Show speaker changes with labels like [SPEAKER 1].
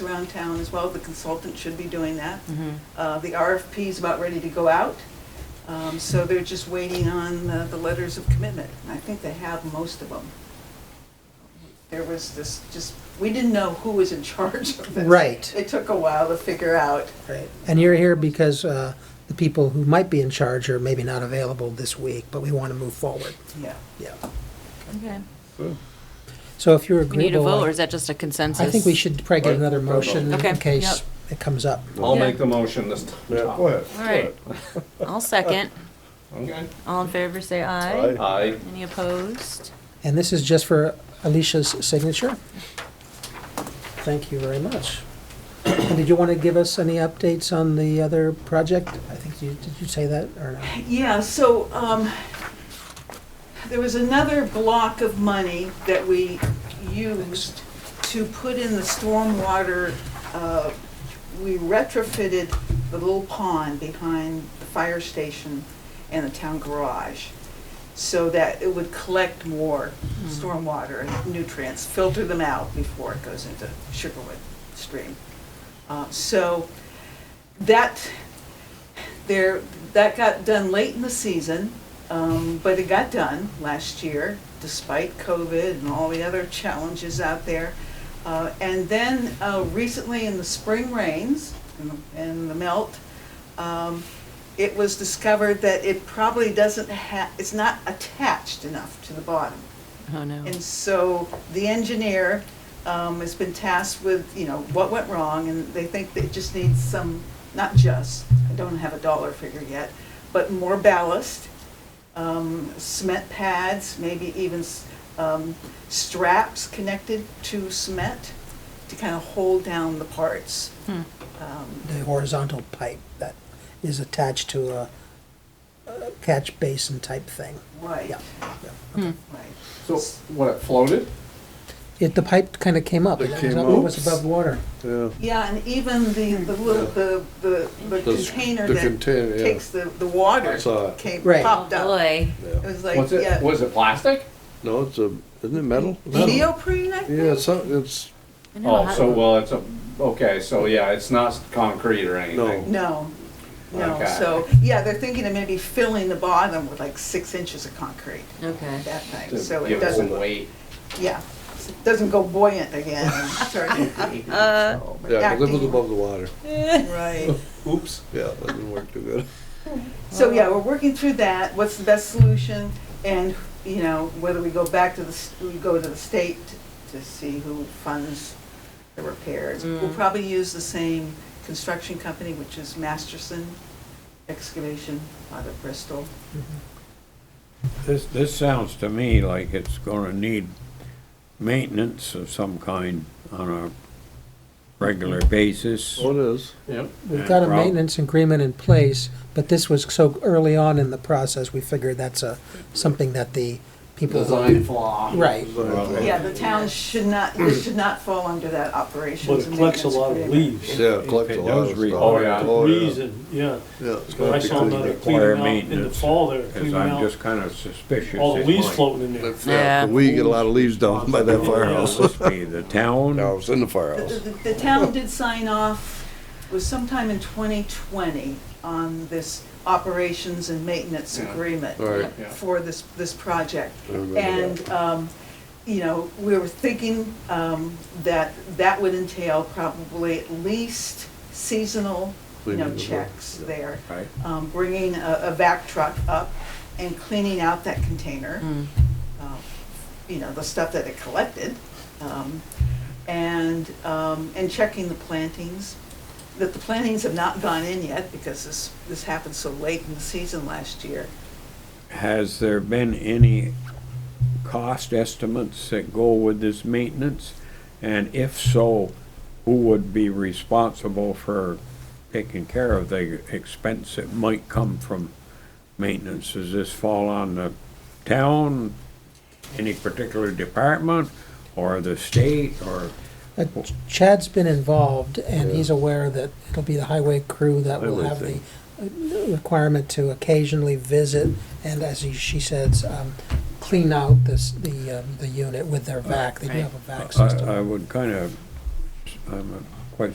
[SPEAKER 1] downtown as well, the consultant should be doing that.
[SPEAKER 2] Mm-hmm.
[SPEAKER 1] Uh, The RFP is about ready to go out, Um, so they're just waiting on uh, the letters of commitment. And I think they have most of them. There was this, just, we didn't know who was in charge of this.
[SPEAKER 3] Right.
[SPEAKER 1] It took a while to figure out.
[SPEAKER 3] Right. And you're here because uh, the people who might be in charge are maybe not available this week, but we want to move forward.
[SPEAKER 1] Yeah.
[SPEAKER 3] Yeah.
[SPEAKER 2] Okay.
[SPEAKER 3] So if you're
[SPEAKER 2] We need a
[SPEAKER 3] agreeable,
[SPEAKER 2] vote, or
[SPEAKER 3] I
[SPEAKER 2] is that just a consensus?
[SPEAKER 3] I think we should probably get
[SPEAKER 4] Right.
[SPEAKER 3] another motion
[SPEAKER 2] Okay,
[SPEAKER 3] in case
[SPEAKER 2] yep.
[SPEAKER 3] it comes up.
[SPEAKER 4] I'll
[SPEAKER 2] Yeah.
[SPEAKER 4] make the motion this
[SPEAKER 5] Yeah,
[SPEAKER 4] time.
[SPEAKER 5] go ahead.
[SPEAKER 2] All right. I'll second.
[SPEAKER 4] Okay.
[SPEAKER 2] All in favor, say aye.
[SPEAKER 4] Aye.
[SPEAKER 2] Any opposed?
[SPEAKER 3] And this is just for Alicia's signature. Thank you very much. And did you want to give us any updates on the other project? I think you, did you say that or not?
[SPEAKER 1] Yeah, so um, there was another block of money that we used to put in the stormwater. uh, We retrofitted the little pond behind the fire station and the town garage so that it would collect more stormwater and nutrients, filter them out before it goes into Sugarwood Stream. Uh, So that, there, that got done late in the season, um, but it got done last year despite COVID and all the other challenges out there. Uh, and then, uh, recently in the spring rains and the- and the melt, um, it was discovered that it probably doesn't ha, it's not attached enough to the bottom.
[SPEAKER 2] Oh, no.
[SPEAKER 1] And so the engineer um, has been tasked with, you know, what went wrong, and they think that it just needs some, not just, I don't have a dollar figure yet, but more ballast, um, cement pads, maybe even s- um, straps connected to cement to kind of hold down the parts.
[SPEAKER 2] Hmm.
[SPEAKER 1] Um,
[SPEAKER 3] The horizontal pipe that is attached to a a catch basin type thing.
[SPEAKER 1] Right,
[SPEAKER 3] Yeah. yeah.
[SPEAKER 2] Hmm.
[SPEAKER 1] right.
[SPEAKER 4] So, what, it floated?
[SPEAKER 3] It, the pipe kind of came up.
[SPEAKER 5] It
[SPEAKER 3] was
[SPEAKER 5] came
[SPEAKER 3] up-
[SPEAKER 5] up.
[SPEAKER 3] It was above water.
[SPEAKER 5] Yeah.
[SPEAKER 1] Yeah, and even the, the
[SPEAKER 3] Hmm.
[SPEAKER 1] little, the, the the
[SPEAKER 5] Those-
[SPEAKER 1] container
[SPEAKER 5] the
[SPEAKER 1] that
[SPEAKER 5] container, yeah.
[SPEAKER 1] takes the, the water
[SPEAKER 5] I saw it.
[SPEAKER 1] came,
[SPEAKER 3] Right.
[SPEAKER 2] Oh,
[SPEAKER 1] popped up.
[SPEAKER 2] boy.
[SPEAKER 1] It
[SPEAKER 5] Yeah.
[SPEAKER 1] was like,
[SPEAKER 4] Was it,
[SPEAKER 1] yeah.
[SPEAKER 4] was it plastic?
[SPEAKER 5] No, it's a, isn't it metal?
[SPEAKER 1] Neoprene, I
[SPEAKER 5] Yeah,
[SPEAKER 1] think?
[SPEAKER 5] it's, not- it's,
[SPEAKER 2] I know
[SPEAKER 4] Oh,
[SPEAKER 2] how-
[SPEAKER 4] so, well, it's a, okay, so, yeah, it's not concrete or anything.
[SPEAKER 1] No, no,
[SPEAKER 4] Okay.
[SPEAKER 1] so, yeah, they're thinking of maybe filling the bottom with like six inches of concrete,
[SPEAKER 2] Okay.
[SPEAKER 1] that thing, so
[SPEAKER 4] To
[SPEAKER 1] it
[SPEAKER 4] give it some
[SPEAKER 1] doesn't,
[SPEAKER 4] weight.
[SPEAKER 1] yeah. so it Doesn't go buoyant again and start
[SPEAKER 2] Uh.
[SPEAKER 5] yeah, because it was
[SPEAKER 1] acting.
[SPEAKER 5] above the water.
[SPEAKER 1] Right.
[SPEAKER 4] Oops.
[SPEAKER 5] Yeah, that didn't work too good.
[SPEAKER 1] So, yeah, we're working through that, what's the best solution, and, you know, whether we go back to the, s- we go to the state to see who funds the repairs. We'll
[SPEAKER 2] Mm.
[SPEAKER 1] probably use the same construction company, which is Masterson Excavation out of Bristol.
[SPEAKER 6] This, this sounds to me like it's gonna need maintenance of some kind on a regular
[SPEAKER 7] Mm-hmm.
[SPEAKER 6] basis.
[SPEAKER 5] Oh, it is.
[SPEAKER 4] Yep.
[SPEAKER 3] We've
[SPEAKER 6] Yeah,
[SPEAKER 3] got a
[SPEAKER 6] Rob?
[SPEAKER 3] maintenance agreement in place, but this was so early on in the process, we figured that's a, something that the people.
[SPEAKER 4] Design flaw.
[SPEAKER 3] Right.
[SPEAKER 5] Design.
[SPEAKER 1] Yeah, the town should not, this should not fall under that
[SPEAKER 7] But
[SPEAKER 1] operations.
[SPEAKER 7] it
[SPEAKER 1] and
[SPEAKER 7] collects a
[SPEAKER 1] maintenance
[SPEAKER 7] lot of
[SPEAKER 1] agreement.
[SPEAKER 7] leaves.
[SPEAKER 5] Yeah, it collects a
[SPEAKER 6] It
[SPEAKER 5] lot of
[SPEAKER 6] does
[SPEAKER 5] stuff.
[SPEAKER 6] read-
[SPEAKER 4] Oh, yeah.
[SPEAKER 5] Oh, yeah.
[SPEAKER 7] Leaves and, yeah.
[SPEAKER 5] Yeah, it's
[SPEAKER 7] But I
[SPEAKER 5] gonna be
[SPEAKER 7] saw them
[SPEAKER 5] cleaned
[SPEAKER 7] out
[SPEAKER 5] up.
[SPEAKER 6] Require
[SPEAKER 7] cleaning out in the
[SPEAKER 6] maintenance,
[SPEAKER 7] fall there,
[SPEAKER 6] Cause
[SPEAKER 7] cleaning
[SPEAKER 6] I'm
[SPEAKER 7] out
[SPEAKER 6] just kinda suspicious.
[SPEAKER 7] all the
[SPEAKER 6] it
[SPEAKER 7] leaves
[SPEAKER 6] might-
[SPEAKER 7] floating in there.
[SPEAKER 5] Yeah,
[SPEAKER 2] Yeah.
[SPEAKER 5] but we get a lot of leaves down by that firehouse.
[SPEAKER 6] Must be the town.
[SPEAKER 5] No, it's in the
[SPEAKER 1] The-
[SPEAKER 5] firehouse.
[SPEAKER 1] The the town did sign off, it was sometime in 2020, on this operations and maintenance
[SPEAKER 4] Yeah.
[SPEAKER 1] agreement
[SPEAKER 5] All right.
[SPEAKER 4] Yeah.
[SPEAKER 1] for this, this project.
[SPEAKER 5] I remember
[SPEAKER 1] And, um, you know, we were thinking um, that that would entail probably at least seasonal, you know,
[SPEAKER 5] Cleaning the-
[SPEAKER 1] checks
[SPEAKER 5] yeah.
[SPEAKER 1] there.
[SPEAKER 6] Right.
[SPEAKER 1] Um, Bringing a a vac truck up and cleaning out that container
[SPEAKER 2] Mm.
[SPEAKER 1] uh, you know, the stuff that it collected, um, and, um, and checking the plantings. That the plantings have not gone in yet because this, this happened so late in the season last year.
[SPEAKER 6] Has there been any cost estimates that go with this maintenance? And if so, who would be responsible for taking care of the expense that might come from maintenance? Does this fall on the town, any particular department, or the state, or?
[SPEAKER 3] Uh, Chad's been involved, and he's aware that it'll be the highway crew that will have the uh, requirement to occasionally visit, and as he- she says, um, clean out this, the, um, the unit with their vac, they do have a vac
[SPEAKER 6] uh, I,
[SPEAKER 3] system.
[SPEAKER 6] I would kind of, I'm